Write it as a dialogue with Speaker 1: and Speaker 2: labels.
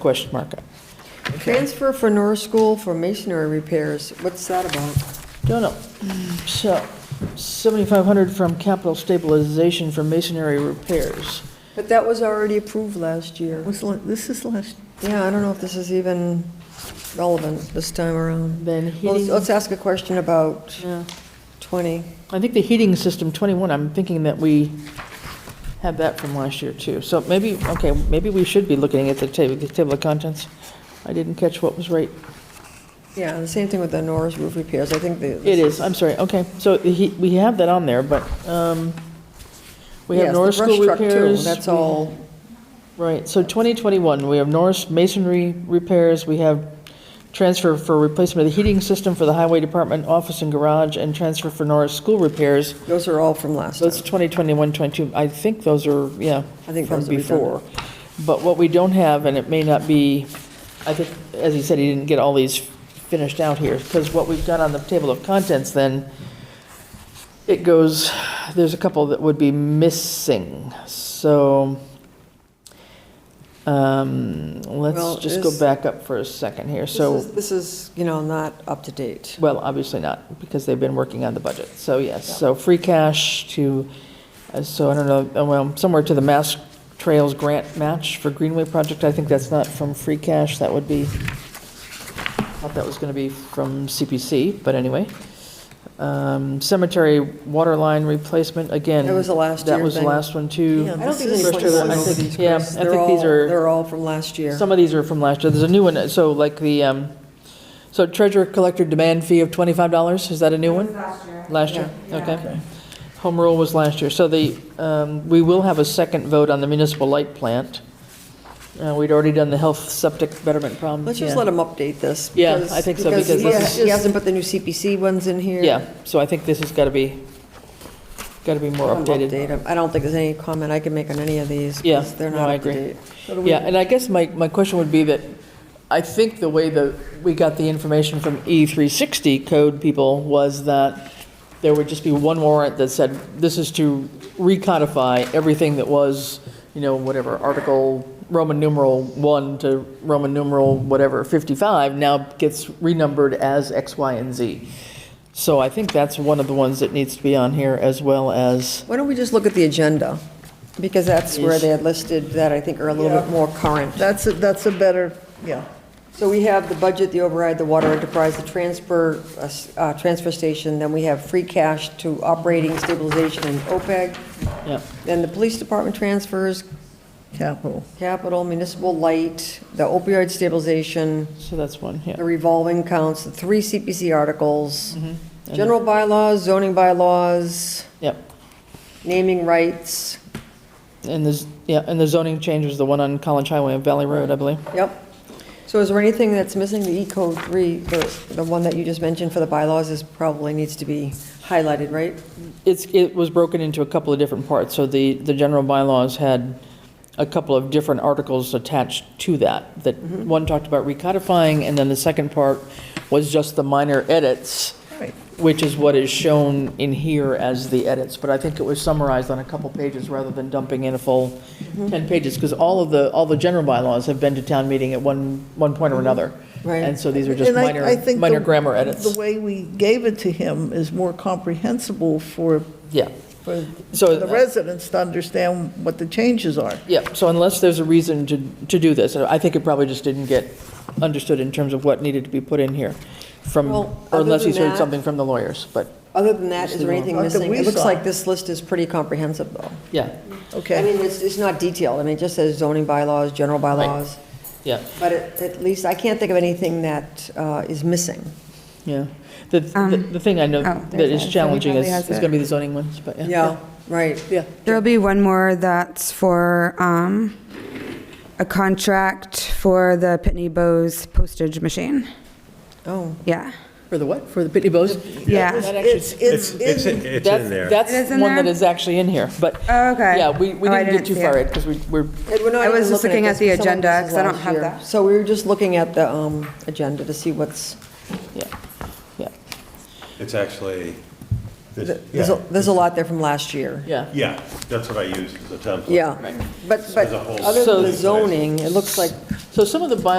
Speaker 1: Question mark.
Speaker 2: Transfer for Norris School for masonry repairs, what's that about?
Speaker 1: Don't know. So, 7,500 from capital stabilization for masonry repairs.
Speaker 2: But that was already approved last year.
Speaker 3: Was, la- this is last,
Speaker 2: Yeah, I don't know if this is even relevant this time around.
Speaker 1: Then
Speaker 3: Oh,
Speaker 2: Well, Let's
Speaker 1: heating,
Speaker 2: let's ask a question about
Speaker 1: yeah.
Speaker 2: 20.
Speaker 1: I think the heating system 21, I'm thinking that we had that from last year too. So maybe, okay, maybe we should be looking at the table, the table of contents. I didn't catch what was right.
Speaker 2: Yeah, the same thing with the Norris roof repairs, I think the.
Speaker 1: It is, I'm sorry, okay. So he, we have that on there, but, um, we
Speaker 2: Yes,
Speaker 1: have
Speaker 2: the
Speaker 1: Norris
Speaker 2: brush
Speaker 1: School
Speaker 2: truck, too,
Speaker 1: repairs.
Speaker 2: That's
Speaker 1: we-
Speaker 2: all,
Speaker 1: Right, so 2021, we have Norris masonry repairs, we have transfer for replacement of the heating system for the highway department office and garage, and transfer for Norris school repairs.
Speaker 2: those are all from last
Speaker 1: Those
Speaker 2: time.
Speaker 1: 2021, 22, I think those are, yeah,
Speaker 2: I think
Speaker 1: from
Speaker 2: those are
Speaker 1: before. But what we don't have, and it may not be, I think, as he said, he didn't get all these finished out here, because what we've got on the table of contents then, it goes, there's a couple that would be missing, so, um,
Speaker 2: Well,
Speaker 1: let's just go
Speaker 2: this-
Speaker 1: back up for a second here,
Speaker 2: This
Speaker 1: so,
Speaker 2: is- This is, you know, not up to date.
Speaker 1: well, obviously not, because they've been working on the budget, so yes, so free cash to, uh, so I don't know, uh, well, somewhere to the Mass Trails grant match for Greenway project, I think that's not from free cash, that would be, thought that was gonna be from CPC, but anyway. Um, Cemetery water line replacement, again.
Speaker 2: That was the last
Speaker 1: That
Speaker 2: year
Speaker 1: was the
Speaker 2: thing.
Speaker 1: last one, too.
Speaker 3: Yeah,
Speaker 2: I don't think
Speaker 3: This
Speaker 2: we
Speaker 3: is
Speaker 2: put
Speaker 1: First of all, I
Speaker 2: over
Speaker 1: think-
Speaker 2: these,
Speaker 1: yeah,
Speaker 2: Chris.
Speaker 1: I
Speaker 2: They're
Speaker 1: think these
Speaker 2: all-
Speaker 1: are-
Speaker 2: They're all from last year.
Speaker 1: Some of these are from last year. There's a new one, so like the, um, so treasurer collector demand fee of $25, is that a new one?
Speaker 4: Last year.
Speaker 1: Last year? Okay. Home rule was last year. So the, um, we will have a second vote on the municipal light plant. Uh, We'd already done the health septic betterment problem.
Speaker 2: Let's just let him update this.
Speaker 1: Yeah, I think so, because
Speaker 2: he-
Speaker 1: this
Speaker 2: He hasn't put the new CPC ones in here.
Speaker 1: Yeah, so I think this has got to be, got to be more
Speaker 2: Update
Speaker 1: updated.
Speaker 2: them. I don't think there's any comment I can make on any of these. 'cause
Speaker 1: Yeah,
Speaker 2: They're
Speaker 1: no,
Speaker 2: not
Speaker 1: I
Speaker 2: up to
Speaker 1: agree.
Speaker 2: date. So do we-
Speaker 1: Yeah, and I guess my, my question would be that, I think the way that we got the information from E360 code people was that there would just be one warrant that said, this is to recodify everything that was, you know, whatever, Article Roman numeral 1 to Roman numeral whatever, 55, now gets renumbered as X, Y, and Z. So I think that's one of the ones that needs to be on here, as well as,
Speaker 2: Why don't we just look at the agenda? Because that's where
Speaker 1: Yes.
Speaker 2: they had listed that I think are a little bit
Speaker 3: Yeah.
Speaker 2: more current.
Speaker 3: that's, a- that's a better, yeah.
Speaker 2: So we have the budget, the override, the water enterprise, the transfer, uh, s- uh, transfer station, then we have free cash to operating stabilization and OPEB,
Speaker 1: yeah,
Speaker 2: then the police department transfers,
Speaker 3: Capital.
Speaker 2: capital, municipal light, the opioid stabilization,
Speaker 1: so that's one, yeah.
Speaker 2: the revolving counts, the three CPC articles,
Speaker 1: Mm-hmm.
Speaker 2: general bylaws, zoning bylaws,
Speaker 1: Yep.
Speaker 2: naming rights,
Speaker 1: And there's, yeah, and the zoning change was the one on College Highway and Valley Road, I believe.
Speaker 2: yep. So is there anything that's missing? The E-code three, the, the one that you just mentioned for the bylaws is probably needs to be highlighted, right?
Speaker 1: It's, it was broken into a couple of different parts, so the, the general bylaws had a couple of different articles attached to that, that
Speaker 3: Mm-hmm.
Speaker 1: one talked about recodifying, and then the second part was just the minor edits,
Speaker 3: Right.
Speaker 1: which is what is shown in here as the edits, but I think it was summarized on a couple pages rather than dumping in a full
Speaker 3: Mm-hmm.
Speaker 1: 10 pages, because all of the, all the general bylaws have been to town meeting at one, one point or another.
Speaker 2: Right.
Speaker 1: And so these are just
Speaker 3: Mm-hmm. And I- I
Speaker 1: minor,
Speaker 3: think
Speaker 1: minor
Speaker 3: the-
Speaker 1: grammar edits.
Speaker 3: The way we gave it to him is more comprehensible for,
Speaker 1: Yeah,
Speaker 3: for
Speaker 1: So-
Speaker 3: the residents to understand what the changes are.
Speaker 1: yeah, so unless there's a reason to, to do this, I think it probably just didn't get understood in terms of what needed to be put in here from,
Speaker 2: Well,
Speaker 1: or
Speaker 2: other
Speaker 1: unless he's
Speaker 2: than
Speaker 1: heard
Speaker 2: that-
Speaker 1: something from the lawyers, but,
Speaker 2: Other than that, is there anything
Speaker 3: Not that
Speaker 2: missing?
Speaker 3: we
Speaker 2: It looks
Speaker 3: saw.
Speaker 2: like this list is pretty comprehensive, though.
Speaker 1: yeah,
Speaker 2: I
Speaker 3: Okay.
Speaker 2: mean, it's, it's not detailed. I mean, it just says zoning bylaws, general bylaws.
Speaker 1: yeah,
Speaker 2: But at, at least, I can't think of anything that uh, is missing.
Speaker 1: yeah. The, the
Speaker 4: Um,
Speaker 1: the thing I know
Speaker 4: oh,
Speaker 1: that
Speaker 4: there's that.
Speaker 1: is
Speaker 4: So he
Speaker 1: challenging is,
Speaker 4: probably has
Speaker 1: is
Speaker 4: it.
Speaker 1: gonna be the zoning ones, but, yeah.
Speaker 2: Yeah, right.
Speaker 1: Yeah,
Speaker 4: There'll be one more that's for um, a contract for the Pitney Bowes postage machine.
Speaker 2: Oh,
Speaker 4: Yeah.
Speaker 1: for the what, for the Pitney Bowes?
Speaker 4: Yeah.
Speaker 1: That actually-
Speaker 3: It's, it's,
Speaker 5: It's,
Speaker 3: in-
Speaker 5: it's
Speaker 1: That's,
Speaker 5: in there.
Speaker 1: that's
Speaker 4: It is in
Speaker 1: one that
Speaker 4: there?
Speaker 1: is actually in here, but,
Speaker 4: Oh, okay.
Speaker 1: yeah, we, we
Speaker 4: Oh, I
Speaker 1: didn't get
Speaker 4: didn't
Speaker 1: too
Speaker 4: see
Speaker 1: far,
Speaker 4: it.
Speaker 1: because we, we're,
Speaker 2: And we're not
Speaker 4: I was
Speaker 2: even
Speaker 4: just looking at
Speaker 2: this,
Speaker 4: the
Speaker 2: 'cause some of
Speaker 4: agenda,
Speaker 2: this is
Speaker 4: 'cause I don't
Speaker 2: last
Speaker 4: have
Speaker 2: year.
Speaker 4: that.
Speaker 2: So we were just looking at the um, agenda to see what's,
Speaker 1: yeah, yeah,
Speaker 5: It's actually,
Speaker 2: th-
Speaker 5: this-
Speaker 2: there's, a-
Speaker 5: yeah.
Speaker 2: there's a lot there from last year.
Speaker 1: yeah.
Speaker 5: Yeah, that's what I use as a template.
Speaker 2: Yeah, but, but
Speaker 5: There's a whole
Speaker 2: other
Speaker 1: So-
Speaker 2: than the zoning, it looks like
Speaker 1: So So some of the bylaws